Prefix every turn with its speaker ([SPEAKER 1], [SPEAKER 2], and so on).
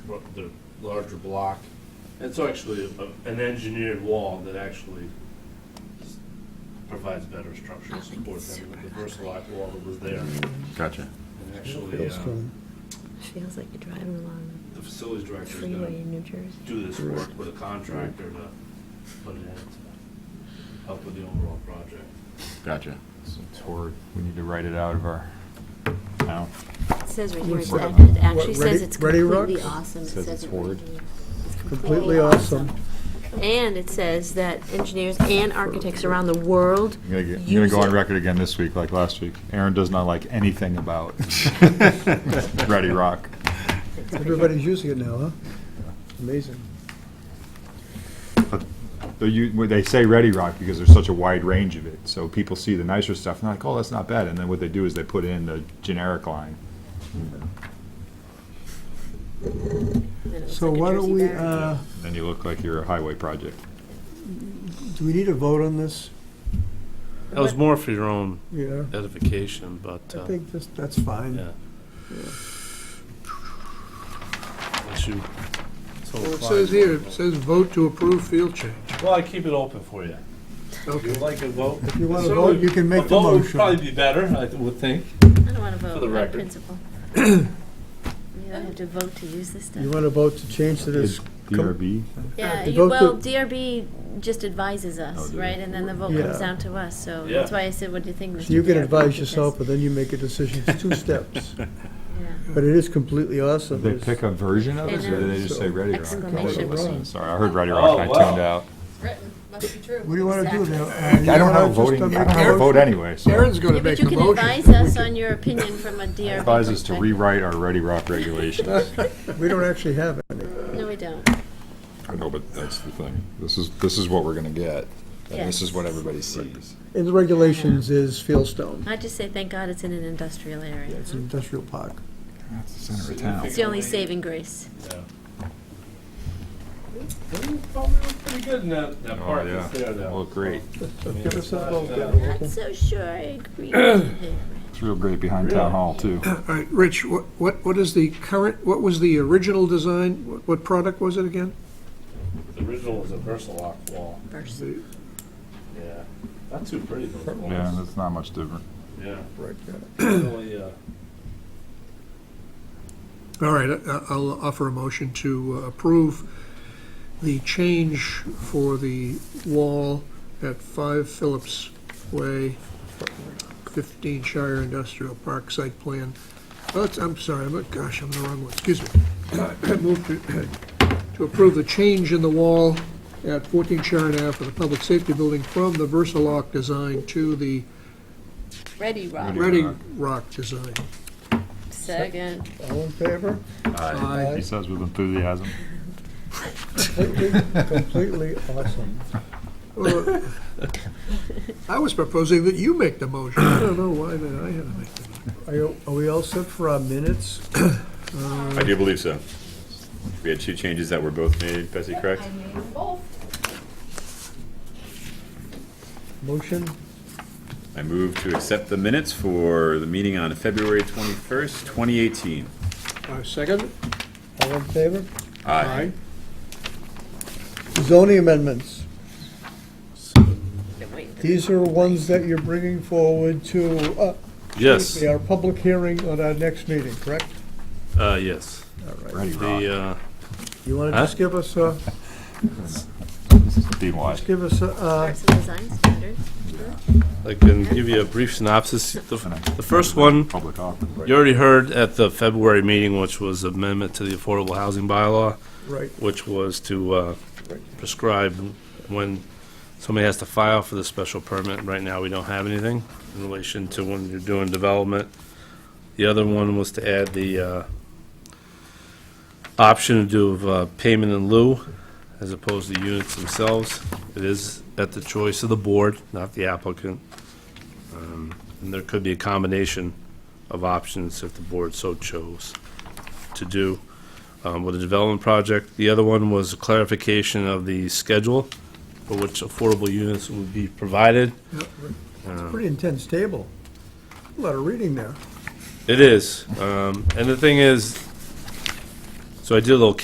[SPEAKER 1] ro- the larger block. It's actually a- an engineered wall that actually s- provides better structural support than the Versalock wall that was there.
[SPEAKER 2] Gotcha.
[SPEAKER 1] And actually,
[SPEAKER 3] Feels
[SPEAKER 1] uh,
[SPEAKER 3] good.
[SPEAKER 4] Feels like you're driving along
[SPEAKER 1] the facilities
[SPEAKER 4] the
[SPEAKER 1] director is
[SPEAKER 4] freeway
[SPEAKER 1] gonna
[SPEAKER 4] in New Jersey.
[SPEAKER 1] do this work with a contractor to put it in to help with the overall project.
[SPEAKER 2] Gotcha.
[SPEAKER 5] It's horrid. We need to write it out of our, I don't,
[SPEAKER 4] It says right here,
[SPEAKER 3] What's
[SPEAKER 4] it's
[SPEAKER 3] that?
[SPEAKER 4] act- it
[SPEAKER 3] What,
[SPEAKER 4] actually says
[SPEAKER 3] Ready-
[SPEAKER 4] it's
[SPEAKER 3] Ready
[SPEAKER 4] completely
[SPEAKER 3] Rocks?
[SPEAKER 4] awesome. It
[SPEAKER 5] Says
[SPEAKER 4] says
[SPEAKER 5] it's
[SPEAKER 4] it right
[SPEAKER 5] horrid.
[SPEAKER 4] here. It's
[SPEAKER 3] Completely awesome.
[SPEAKER 4] And it says that engineers and architects around the world
[SPEAKER 5] I'm gonna, get- I'm gonna
[SPEAKER 4] use
[SPEAKER 5] go on
[SPEAKER 4] it.
[SPEAKER 5] record again this week, like last week. Aaron does not like anything about Ready Rock.
[SPEAKER 3] Everybody's using it now, huh? Amazing.
[SPEAKER 5] They, u- when they say Ready Rock because there's such a wide range of it. So people see the nicer stuff and they're like, oh, that's not bad. And then what they do is they put in the generic line.
[SPEAKER 4] And it looks
[SPEAKER 3] So
[SPEAKER 4] like a
[SPEAKER 3] why don't
[SPEAKER 4] Jersey
[SPEAKER 3] we,
[SPEAKER 4] barrier.
[SPEAKER 3] uh,
[SPEAKER 5] And then you look like you're a highway project.
[SPEAKER 3] do we need a vote on this?
[SPEAKER 1] That was more for your own
[SPEAKER 3] Yeah,
[SPEAKER 1] edification, but,
[SPEAKER 3] I
[SPEAKER 1] uh,
[SPEAKER 3] think this, that's fine.
[SPEAKER 1] yeah. Unless you so
[SPEAKER 6] Well, it
[SPEAKER 1] inclined.
[SPEAKER 6] says here, it says vote to approve field change.
[SPEAKER 1] Well, I keep it open for you. If
[SPEAKER 6] Okay.
[SPEAKER 1] you'd like a vote.
[SPEAKER 3] If you want to
[SPEAKER 1] So
[SPEAKER 3] vote, you can make the
[SPEAKER 1] A vote would
[SPEAKER 3] motion.
[SPEAKER 1] probably be better, I would think.
[SPEAKER 4] I don't want to
[SPEAKER 1] the
[SPEAKER 4] vote on
[SPEAKER 1] record.
[SPEAKER 4] principle. You don't have to vote to use this
[SPEAKER 3] You
[SPEAKER 4] stuff.
[SPEAKER 3] want to vote to change to this?
[SPEAKER 5] Is DRB?
[SPEAKER 4] Yeah,
[SPEAKER 3] to
[SPEAKER 4] you-
[SPEAKER 3] vote
[SPEAKER 4] well,
[SPEAKER 3] to-
[SPEAKER 4] DRB just advises
[SPEAKER 5] Oh,
[SPEAKER 4] us,
[SPEAKER 5] do
[SPEAKER 4] right?
[SPEAKER 5] they?
[SPEAKER 4] And then the vote
[SPEAKER 3] Yeah.
[SPEAKER 4] comes down to us, so
[SPEAKER 1] Yeah.
[SPEAKER 4] that's why I said, what do you think, Mr.
[SPEAKER 3] So you can
[SPEAKER 4] DRB?
[SPEAKER 3] advise
[SPEAKER 4] Because-
[SPEAKER 3] yourself, but then you make a decision. It's two steps.
[SPEAKER 4] yeah.
[SPEAKER 3] But it is completely awesome.
[SPEAKER 5] Did they
[SPEAKER 3] It's-
[SPEAKER 5] pick a version of it or did they just say Ready Rock? I wasn't
[SPEAKER 4] Exclamation.
[SPEAKER 5] listening. Sorry, I heard Ready Rock and I tuned out.
[SPEAKER 7] written, must be true.
[SPEAKER 3] What do you uh, want to do
[SPEAKER 4] Exactly.
[SPEAKER 3] now?
[SPEAKER 5] I don't have voting, I don't have a vote anyway, so.
[SPEAKER 6] Aaron's gonna
[SPEAKER 4] Yeah, but
[SPEAKER 6] make
[SPEAKER 4] you
[SPEAKER 6] a
[SPEAKER 4] can
[SPEAKER 6] motion.
[SPEAKER 4] advise us on your opinion from a DRB
[SPEAKER 5] Advise us to
[SPEAKER 4] perspective.
[SPEAKER 5] rewrite our Ready Rock regulations.
[SPEAKER 3] We don't actually have any.
[SPEAKER 4] No, we don't.
[SPEAKER 5] I know, but that's the thing. This is, this is what we're gonna get, and this is
[SPEAKER 4] Yes.
[SPEAKER 5] what everybody sees.
[SPEAKER 3] In the regulations is fieldstone.
[SPEAKER 4] I just say, thank God it's in an industrial area.
[SPEAKER 3] It's an industrial park.
[SPEAKER 5] That's the center of town.
[SPEAKER 4] It's the only saving grace.
[SPEAKER 1] Well, you probably look pretty good in that, that
[SPEAKER 5] Oh,
[SPEAKER 1] part
[SPEAKER 5] yeah.
[SPEAKER 1] that's there Um, now.
[SPEAKER 5] Look great.
[SPEAKER 3] Give us a vote.
[SPEAKER 4] Not so sure I agree with you.
[SPEAKER 5] It's real great behind town hall, too.
[SPEAKER 6] All right, Rich, what, what what is the current, what was the original design? What- What product was it again?
[SPEAKER 1] The original was a Versalock wall,
[SPEAKER 4] first.
[SPEAKER 6] The-
[SPEAKER 1] yeah. Not too pretty, those
[SPEAKER 5] Yeah,
[SPEAKER 1] walls.
[SPEAKER 5] that's not much different.
[SPEAKER 1] Yeah.
[SPEAKER 3] Right, yeah.
[SPEAKER 1] Really, uh,
[SPEAKER 6] All right, I- I'll offer a motion to uh, approve the change for the wall at 5 Phillips Way, 15 Shire Industrial Park Site Plan. Well, it's- I'm sorry, I'm, gosh, I'm in the wrong one, excuse me. I move to- to approve the change in the wall at 14 Shire Ave for the Public Safety Building from the Versalock design to the
[SPEAKER 4] Ready, Rob.
[SPEAKER 6] Ready Rock design.
[SPEAKER 4] Second.
[SPEAKER 3] All in favor?
[SPEAKER 6] Aye.
[SPEAKER 5] He says with enthusiasm.
[SPEAKER 3] Completely, completely awesome.
[SPEAKER 6] Uh, I was proposing that you make the motion. I don't know why that I had to make the motion.
[SPEAKER 3] Are you- are we all set for our minutes?
[SPEAKER 2] I do believe so. We had two changes that were both made, Bessie, correct?
[SPEAKER 7] I made them both.
[SPEAKER 3] Motion?
[SPEAKER 2] I move to accept the minutes for the meeting on February 21st, 2018.
[SPEAKER 6] Uh, Second?
[SPEAKER 3] All in favor?
[SPEAKER 2] Aye.
[SPEAKER 3] Zoning amendments.
[SPEAKER 4] Been waiting for
[SPEAKER 3] These are ones that you're bringing forward to, uh,
[SPEAKER 1] yes,
[SPEAKER 3] our public hearing on our next meeting, correct?
[SPEAKER 1] uh, yes.
[SPEAKER 5] Ready Rock.
[SPEAKER 1] The, uh,
[SPEAKER 3] You want to
[SPEAKER 1] Huh?
[SPEAKER 3] just give us a,
[SPEAKER 5] Be wise.
[SPEAKER 3] just give us a, uh,
[SPEAKER 4] Parts and design standards.
[SPEAKER 1] I can give you a brief synopsis. The, f- the first one,
[SPEAKER 5] Public offering.
[SPEAKER 1] you already heard at the February meeting, which was amendment to the affordable housing bylaw.
[SPEAKER 3] right,
[SPEAKER 1] which was to uh, prescribe when somebody has to file for the special permit. Right now, we don't have anything in relation to when you're doing development. The other one was to add the uh, option to do uh, payment in lieu as opposed to units themselves. It is at the choice of the board, not the applicant. Um, And there could be a combination of options if the board so chose to do um, with a development project. The other one was a clarification of the schedule for which affordable units would be provided.
[SPEAKER 3] pretty intense table. A lot of reading there.
[SPEAKER 1] It is, um, and the thing is, so I did a little